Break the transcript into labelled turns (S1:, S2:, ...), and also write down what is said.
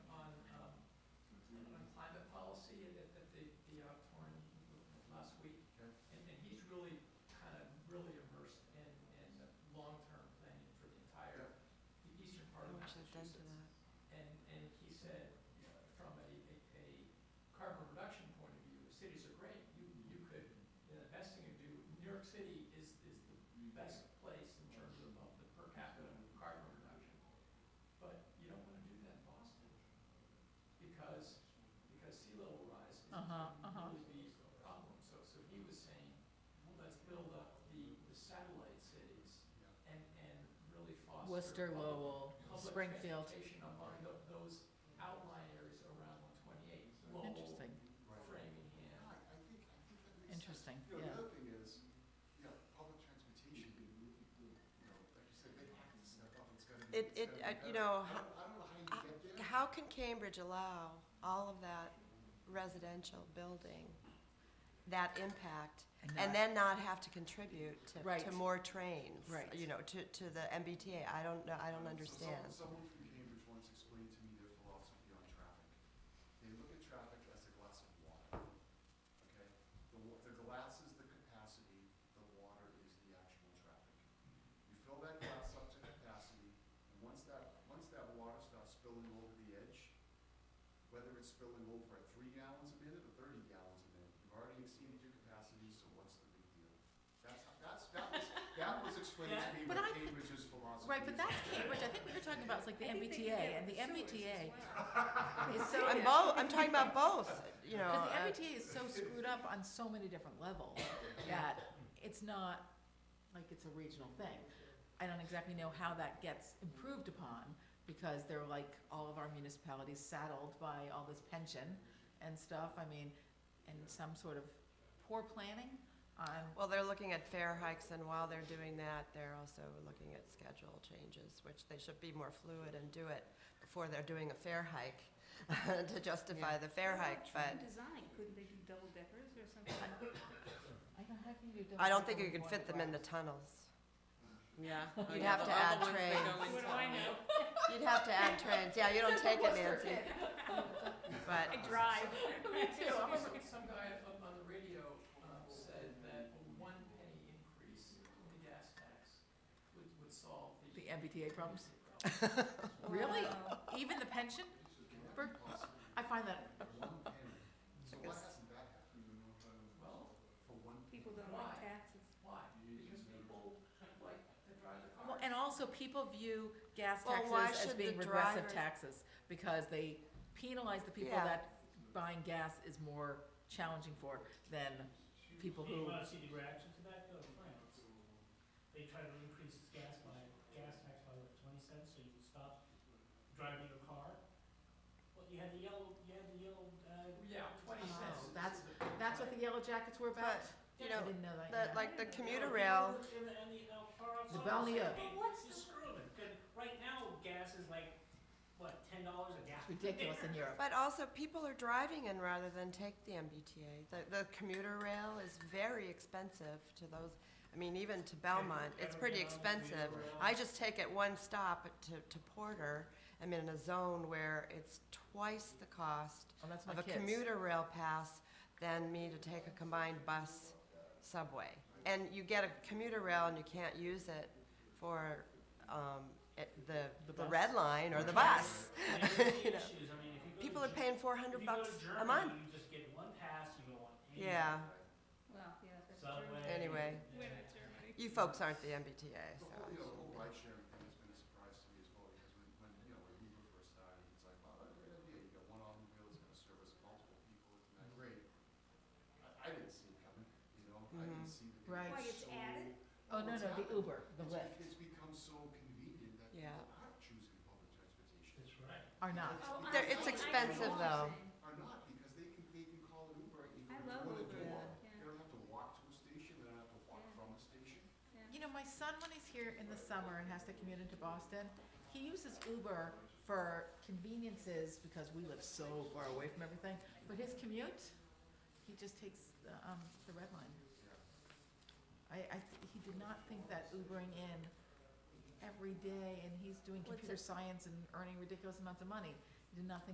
S1: um, uh,
S2: looked into
S1: Massachusetts.
S2: that.
S1: And, and he said, you know, from a, a, a carbon reduction point of view, cities are great, you, you could, the best thing you do, New York City is, is the best place in terms of, of the per capita carbon reduction. But you don't wanna do that in Boston, because, because sea level rise is
S3: Uh-huh, uh-huh.
S1: really the problem, so, so he was saying, well, let's build up the, the satellite cities and, and really foster.
S3: Worcester,
S1: public-
S3: Lowell,
S1: public
S3: Springfield.
S1: transportation among tho- those outlying areas around one twenty-eight,
S3: Oh.
S1: Lowell,
S3: Interesting,
S4: Right. Yeah,
S1: Framingham.
S4: I think, I think that makes sense.
S3: interesting,
S4: You know,
S3: yeah.
S4: the other thing is, you know, public transportation, you know, like you said, they have to step up, it's gotta be,
S2: It-
S4: it's gotta
S2: it-
S4: be
S2: I- you
S4: better.
S2: know,
S4: I don't, I don't know how you get there.
S2: How can Cambridge allow all of that residential building, that impact, and then not have to contribute to,
S3: Right.
S2: to more trains?
S3: Right.
S2: You know, to, to the MBTA, I don't know, I don't
S4: So some-
S2: understand.
S4: Someone from Cambridge once explained to me their philosophy on traffic. They look at traffic as a glass of water, okay? The, wa- the glass is the capacity, the water is the actual traffic. You fill that glass up to capacity, and once that, once that water starts spilling over the edge, whether it's spilling over at three gallons a minute or thirty gallons a minute, you've already exceeded your capacity, so what's the big deal? That's, that's, that was, that was explained to me
S3: But
S4: what
S3: I-
S4: Cambridge's philosophy is.
S3: Right, but that's Cambridge, I think we were talking about, it's like the MBTA, and the MBTA is so.
S2: I'm both, I'm talking about both, you know.
S3: Because the
S2: uh,
S3: MBTA is so screwed up on so many different levels that it's not like it's a regional thing. I don't exactly know how that gets improved upon because they're like all of our municipalities saddled by all this pension and stuff. I mean, and some sort of poor planning on,
S2: Well, they're looking at fare hikes, and while they're doing that, they're also looking at schedule changes, which they should be more fluid and do it before they're doing a fare hike to justify
S3: Yeah.
S2: the fare hike, but
S5: Design, couldn't they do double deckers or something?
S3: I don't, how can you do?
S2: I don't think you can fit them in the tunnels.
S6: Yeah. Oh,
S2: You'd
S6: yeah,
S2: have
S6: the
S2: to add
S6: other ones they
S2: trains.
S6: go in
S5: What do I
S6: town.
S5: know?
S2: You'd have to add trains, yeah, you don't take it, Nancy,
S5: I
S2: but,
S5: drive. Me too. I'm a-
S1: Some, some guy up on the radio, um, said that a one penny increase in the gas tax would, would solve the.
S3: The MBTA problems?
S1: problem.
S3: Really?
S5: Wow.
S3: Even the pension? For- I find that
S4: One penny. So why hasn't that happened in North Island?
S1: Well,
S4: For one penny?
S5: People don't
S1: Why?
S5: like taxes.
S1: why? Because people like to drive the
S3: Well,
S1: car.
S3: and also people view gas
S2: Well, why
S3: taxes as
S2: should the
S3: being regressive
S2: driver-
S3: taxes because they penalize the people
S2: Yeah.
S3: that buying gas is more challenging for than people
S7: Do you
S3: who,
S7: wanna see the reaction to that, though, France? They tried to increase its gas by, gas tax by what, twenty cents, so you could stop driving your car? Well, you had the yellow, you had the yellow, uh.
S1: Yeah, twenty
S3: Oh,
S1: cents. is-
S3: that's-
S1: is the-
S3: that's what the yellow jackets were about.
S2: you
S3: I
S2: know,
S3: didn't know that.
S2: the-
S3: yeah.
S2: like the commuter
S7: Yeah,
S2: rail.
S7: And the, and the, uh, car outside.
S3: The Balneo.
S7: Hey, what's the screw it, 'cause right now, gas is like, what, ten dollars a
S3: It's
S7: gallon?
S3: ridiculous in Europe.
S2: but also, people are driving in rather than take the MBTA. The, the commuter rail is very expensive to those, I mean, even to Belmont, it's pretty expensive. I just take it one stop to, to Porter, I'm in a zone where it's twice the cost
S3: Well, Oh, that's my
S2: of a
S3: kids.
S2: commuter rail pass than me to take a combined bus subway. And you get a commuter rail and you can't use it for, um, it- the,
S3: The
S2: the
S3: bus.
S2: red line or the bus.
S7: And there's
S2: You know,
S7: issues, I mean, if you go to
S2: People are
S7: Ger-
S2: paying four
S7: if
S2: hundred
S7: you go to
S2: bucks a
S7: Germany,
S2: month.
S7: You just get one pass, you go on any
S2: Yeah,
S5: Well, yeah, that's true.
S7: subway.
S2: Anyway.
S7: yeah.
S2: you folks aren't the MBTA,
S4: The
S2: so.
S4: whole, you know, the whole ride sharing thing has been a surprise to me as well, because when, when, you know, when Uber first started, it's like, wow, that's a great idea, you got one automobile that's gonna service multiple people, isn't that great? I, I didn't see it coming, you know, I didn't see that. it
S3: Right.
S4: was
S5: Why, it's
S4: so-
S5: added?
S3: Oh, no,
S4: it's
S3: no, the
S4: happened.
S3: Uber, the
S4: It's
S3: Lyft
S4: be- It's become so convenient that
S2: Yeah.
S4: people aren't choosing public transportation.
S7: That's right.
S3: are not.
S5: Oh, I
S2: They're-
S5: see.
S2: it's
S5: I see
S2: expensive,
S5: what you're
S2: though.
S5: saying.
S4: Are not, because they can, they can call an Uber either
S5: I
S4: at
S5: love
S4: door to
S5: Uber,
S4: door,
S5: yeah.
S4: they don't have to walk to a station, they don't have to walk
S5: Yeah.
S4: from a station.
S5: Yeah.
S3: You know, my son, when he's here in the summer and has to commute into Boston, he uses Uber for conveniences because we live so far away from everything. But his commute, he just takes the, um, the red line. I, I, th- he did not think that Ubering in every day and he's doing
S2: What's
S3: computer
S2: it-
S3: science and earning ridiculous amounts of money. He did not think